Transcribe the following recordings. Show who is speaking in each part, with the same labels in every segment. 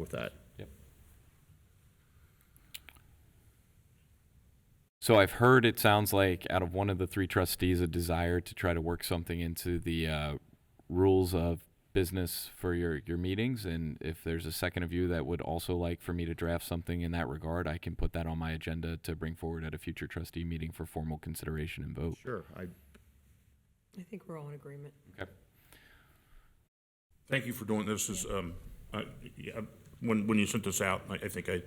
Speaker 1: with that.
Speaker 2: So I've heard it sounds like out of one of the three trustees a desire to try to work something into the uh, rules of business for your your meetings. And if there's a second of you that would also like for me to draft something in that regard, I can put that on my agenda to bring forward at a future trustee meeting for formal consideration and vote.
Speaker 1: Sure. I,
Speaker 3: I think we're all in agreement.
Speaker 2: Okay.
Speaker 4: Thank you for doing this. Is, um, I, yeah, when, when you sent this out, I, I think I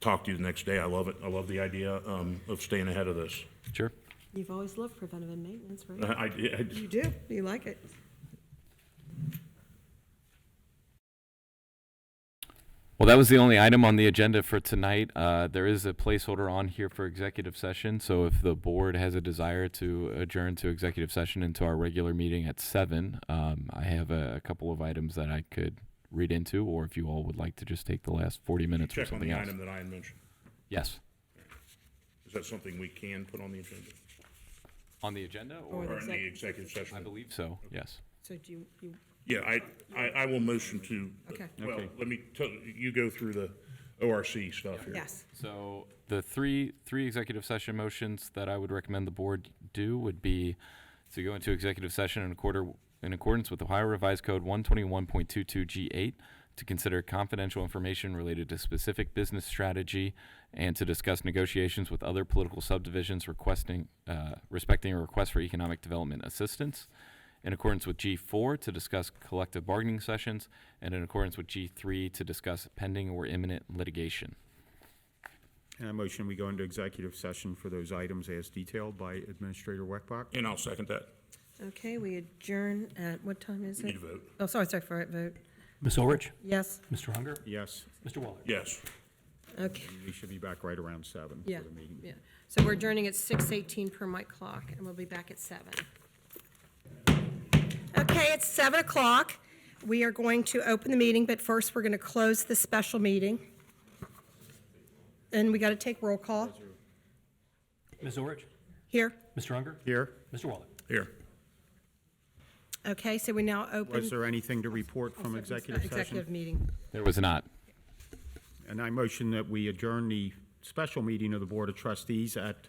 Speaker 4: talked to you the next day. I love it. I love the idea, um, of staying ahead of this.
Speaker 2: Sure.
Speaker 3: You've always loved preventative maintenance,
Speaker 4: I,
Speaker 3: right?
Speaker 4: I, I-
Speaker 3: You do, you like it.
Speaker 2: Well, that was the only item on the agenda for tonight. Uh, There is a placeholder on here for executive session, so if the board has a desire to adjourn to executive session into our regular meeting at seven, um, I have a a couple of items that I could read into, or if you all would like to just take the last 40 minutes for
Speaker 4: check on
Speaker 2: something
Speaker 4: the
Speaker 2: else.
Speaker 4: item that I had mentioned.
Speaker 2: Yes.
Speaker 4: Is that something we can put on the agenda?
Speaker 2: On the agenda,
Speaker 3: Or
Speaker 2: or
Speaker 3: the
Speaker 4: Or in the
Speaker 3: exec-
Speaker 4: executive
Speaker 2: I
Speaker 4: session?
Speaker 2: believe so, yes.
Speaker 3: So do you, you,
Speaker 4: Yeah, I, I, I will motion to. uh,
Speaker 3: Okay.
Speaker 4: Well, let me tell, you go through the ORC stuff here.
Speaker 3: yes,
Speaker 2: So the three, three executive session motions that I would recommend the board do would be to go into executive session in quarter, in accordance with Ohio Revised Code one twenty-one point two-two G eight, to consider confidential information related to specific business strategy and to discuss negotiations with other political subdivisions requesting, uh, respecting a request for economic development assistance. In accordance with G four, to discuss collective bargaining sessions, and in accordance with G three, to discuss pending or imminent litigation.
Speaker 5: And I motion we go into executive session for those items as detailed by Administrator Weckbach.
Speaker 4: And I'll second that.
Speaker 3: okay, we adjourn at, what time is
Speaker 4: We Need
Speaker 3: it?
Speaker 4: a vote?
Speaker 3: Oh, sorry, sorry, for a vote,
Speaker 6: Ms. Orich?
Speaker 3: yes,
Speaker 6: Mr. Unger?
Speaker 5: Yes,
Speaker 6: Mr. Waller?
Speaker 4: Yes.
Speaker 3: okay,
Speaker 5: we should be back right around seven
Speaker 3: yeah,
Speaker 5: for the meeting.
Speaker 3: yeah. So we're adjourning at six eighteen per mic clock, and we'll be back at seven. Okay, it's seven o'clock, we are going to open the meeting, but first, we're gonna close the special meeting. And we gotta take roll call,
Speaker 6: Ms. Orich?
Speaker 3: here,
Speaker 6: Mr. Unger?
Speaker 5: Here,
Speaker 6: Mr. Waller?
Speaker 4: Here.
Speaker 3: okay, so we now
Speaker 5: was
Speaker 3: open.
Speaker 5: there anything to report from executive
Speaker 3: Executive
Speaker 5: session?
Speaker 3: meeting,
Speaker 2: There was not.
Speaker 5: And I motion that we adjourn the special meeting of the Board of Trustees at,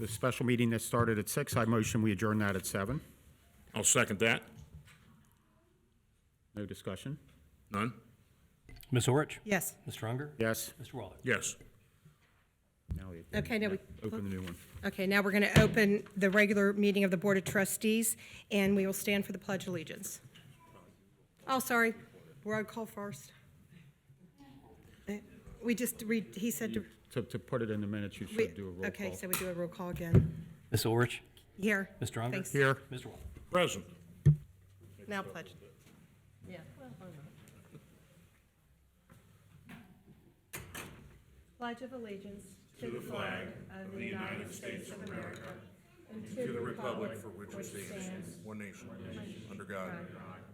Speaker 5: the special meeting that started at six, I motion we adjourn that at seven.
Speaker 4: I'll second that.
Speaker 5: No discussion?
Speaker 4: None?
Speaker 6: Ms. Orich?
Speaker 3: yes,
Speaker 6: Mr. Unger?
Speaker 5: Yes?
Speaker 6: Mr. Waller?
Speaker 4: Yes.
Speaker 5: Now we
Speaker 3: okay, now we.
Speaker 5: Open the new one.
Speaker 3: Okay, now we're going to open the regular meeting of the Board of Trustees, and we will stand for the Pledge of Allegiance. Oh, sorry, roll call first. Eh, We just read, he said to,
Speaker 5: To, to put it in the minutes, you
Speaker 3: we-
Speaker 5: should do a roll
Speaker 3: okay,
Speaker 5: call.
Speaker 3: so we do a roll call again.
Speaker 6: Ms. Orich?
Speaker 3: Here.
Speaker 6: Mr. Unger?
Speaker 3: Thanks.
Speaker 5: Here,
Speaker 6: Mr. Waller?
Speaker 4: Present.
Speaker 3: Now pledge. Yeah. Pledge of Allegiance to the flag of the United States of America and to the republic for which it stands,
Speaker 4: One nation, under God,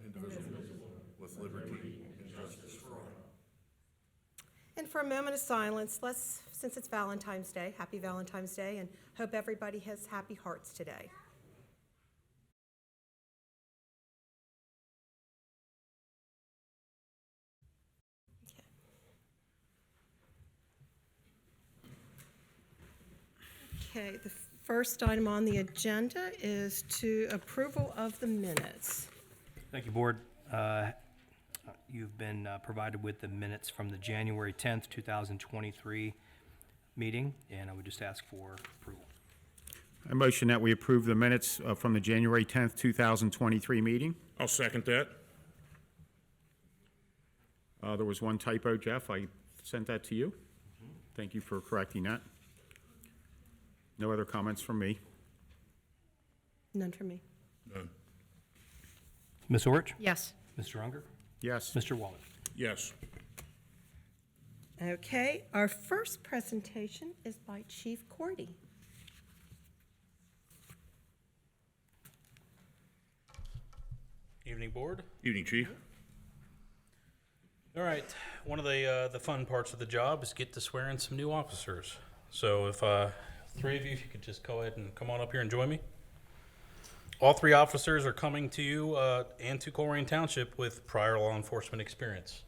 Speaker 4: indivisible, with liberty and justice for all.
Speaker 3: And for a moment of silence, let's, since it's Valentine's Day, happy Valentine's Day, and hope everybody has happy hearts today. Okay, the first item on the agenda is to approval of the minutes.
Speaker 6: Thank you, Board. Uh, You've been uh, provided with the minutes from the January 10th, 2023 meeting, and I would just ask for approval.
Speaker 5: I motion that we approve the minutes uh, from the January tenth, two thousand twenty-three meeting.
Speaker 4: I'll second that.
Speaker 5: Uh, There was one typo, Jeff. I sent that to you. Thank you for correcting that. No other comments from me.
Speaker 3: None for me.
Speaker 4: None.
Speaker 6: Ms. Orich?
Speaker 3: Yes.
Speaker 6: Mr. Unger?
Speaker 5: Yes.
Speaker 6: Mr. Waller?
Speaker 4: Yes.
Speaker 3: Okay, our first presentation is by Chief Cordy.
Speaker 7: Evening board.
Speaker 4: Evening, Chief.
Speaker 7: All right, one of the uh, the fun parts of the job is get to swear in some new officers. So if uh, three of you, if you could just go ahead and come on up here and join me. All three officers are coming to you uh, and to Colerain Township with prior law enforcement experience.